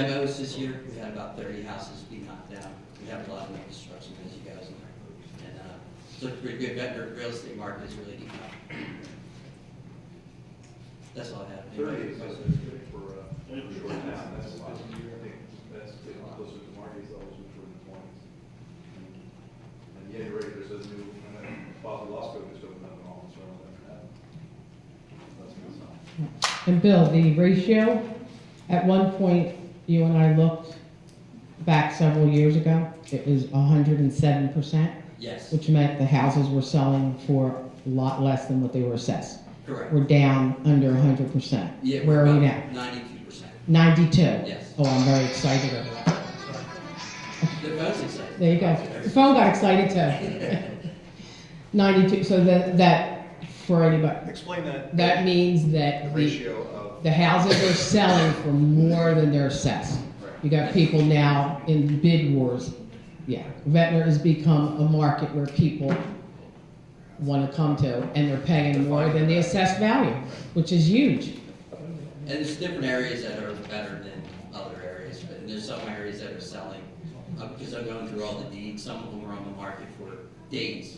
Demos this year, we had about thirty houses be knocked down. We have a lot of new construction, as you guys know. And, uh, it's looked pretty good, vendor, real estate market is really deep now. That's all I have. Thirty Anybody? is just for, uh, for a short time, that's a lot. I think that's getting closer to Marty's levels, which were in the twenties. And yet, right, there's a new, and then Bob Losco just opened up an office around that. That's a good sign. And Bill, the ratio, at one point, you and I looked back several years ago, it was hundred and seven percent, Yes, which meant the houses were selling for a lot less than what they were assessed. correct. We're down under hundred percent. Yeah, Where are we now? Ninety-two percent. Ninety-two? Yes. Oh, I'm very excited over that. The phone's excited. There you go. The phone got excited too. Ninety-two, so that, that, for anybody, Explain that. that means The that the, ratio of, the houses are selling for more than they're assessed. You got people now in bid wars. Yeah, Ventnor has become a market where people want to come to, and they're paying more than the assessed value, which is huge. And there's different areas that are better than other areas, but there's some areas that are selling. Uh, because I'm going through all the deeds, some of them were on the market for days,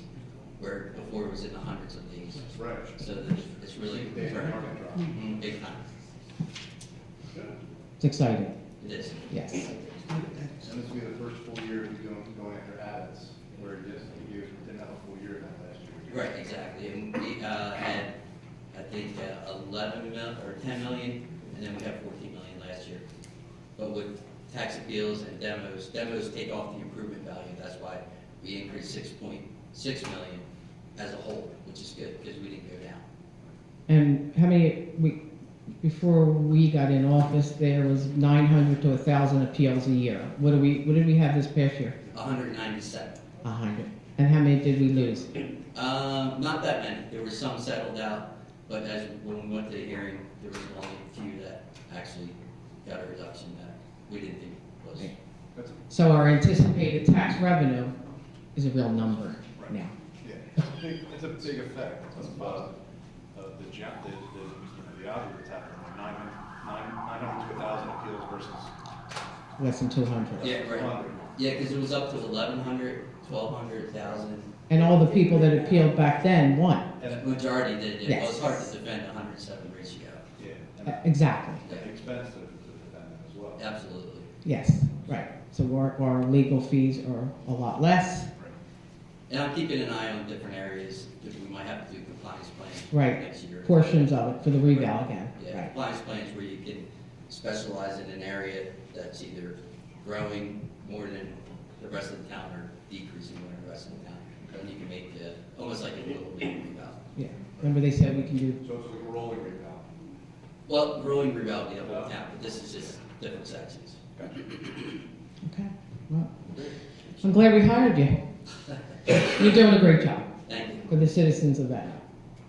where before it was in the hundreds of days. right. So there's- it's really They had a very- market drop. Mhm, big time. It's exciting, It is. yes. And this will be the first full year we going, going after ads, where it just, you didn't have a full year in that last year. Right, exactly. And we uh, had, I think, uh, 11 mil, or 10 million, and then we had 14 million last year. But with tax appeals and demos, demos take off the improvement value. That's why we increased 6.6 million as a whole, which is good, because we didn't go down. And how many, we, before we got in office, there was nine hundred to thousand appeals a year. What do we, what did we have this past year? 197. A hundred. And how many did we lose? Um, Not that many. There were some settled out, but as, when we went to the hearing, there was only a few that actually got a reduction that we didn't think was. That's, So our anticipated tax revenue is a real number now. yeah, it's a big, it's a big effect of, uh, of the jump, the, the, you know, the odds that's happening, like nine, nine, nine hundred to a thousand appeals versus Less than two hundred. Yeah, right. hundred. Yeah, because it was up to 1,100, 1,200, 1,000. And all the people that appealed back then won. The And, Majority did it. Well, it's Yes. hard to defend 107 ratio. yeah, and Uh, Exactly, Yeah, the expense of, of that as well. Absolutely. yes, right. So our, our legal fees are a lot less, And I'm keeping an eye on different areas that we might have to do compliance plans Right. next year. portions of it for the revale again, Yeah, right? compliance plans where you can specialize in an area that's either growing more than the rest of the town or decreasing more than the rest of the town. And you can make the, almost like a little league rebound. Yeah, remember they said we can do, So it's like a rolling rate now. Well, growing rebound, the whole town, but this is just different sections. okay, well, I'm glad we hired you. You're doing a great job Thank you. for the citizens of Ventnor,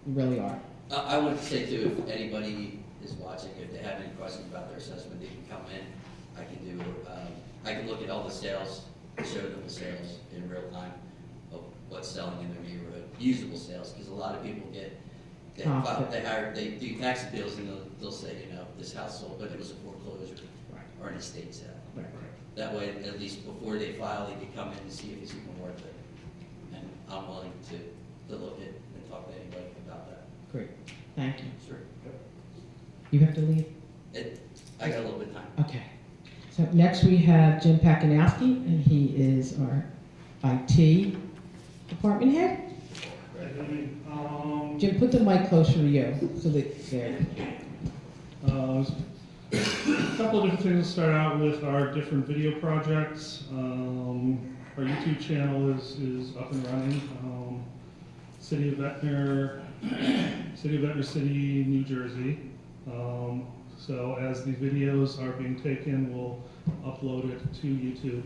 you really are. I I want to say too, if anybody is watching, if they have any questions about their assessment, they can come in. I can do, um, I can look at all the sales, show them the sales in real time of what's selling in their neighborhood, usable sales, because a lot of people get, they Ah, file- okay. they hire, they do tax appeals and they'll, they'll say, you know, this house sold, but it was a foreclosure or an estate sale. Right. That way, at least before they file, they can come in and see if it's even worth it. And I'm willing to, to look at and talk to anybody about that. Great, thank you. Sure. You have to leave? It, I got a little bit of time. Okay. So next we have Jim Pakinowski, and he is our IT department head. Um, Jim, put the mic closer to you, so that, there. uh, a couple of different things to start out with are different video projects. Um, our YouTube channel is, is up and running. Um, City of Ventnor, City of Ventnor City, New Jersey. Um, so as the videos are being taken, we'll upload it to YouTube.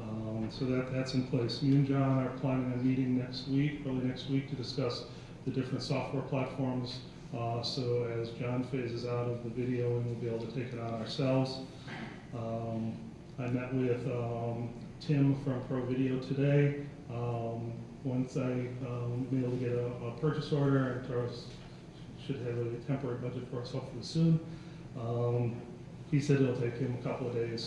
Um, so that, that's in place. Me and John are planning a meeting next week, early next week, to discuss the different software platforms. Uh, so as John phases out of the video, we'll be able to take it on ourselves. Um, I met with um, Tim from Pro Video today. Um, once I um, be able to get a, a purchase order, and Taurus should have a temporary budget for us hopefully soon. Um, He said it'll take him a couple of days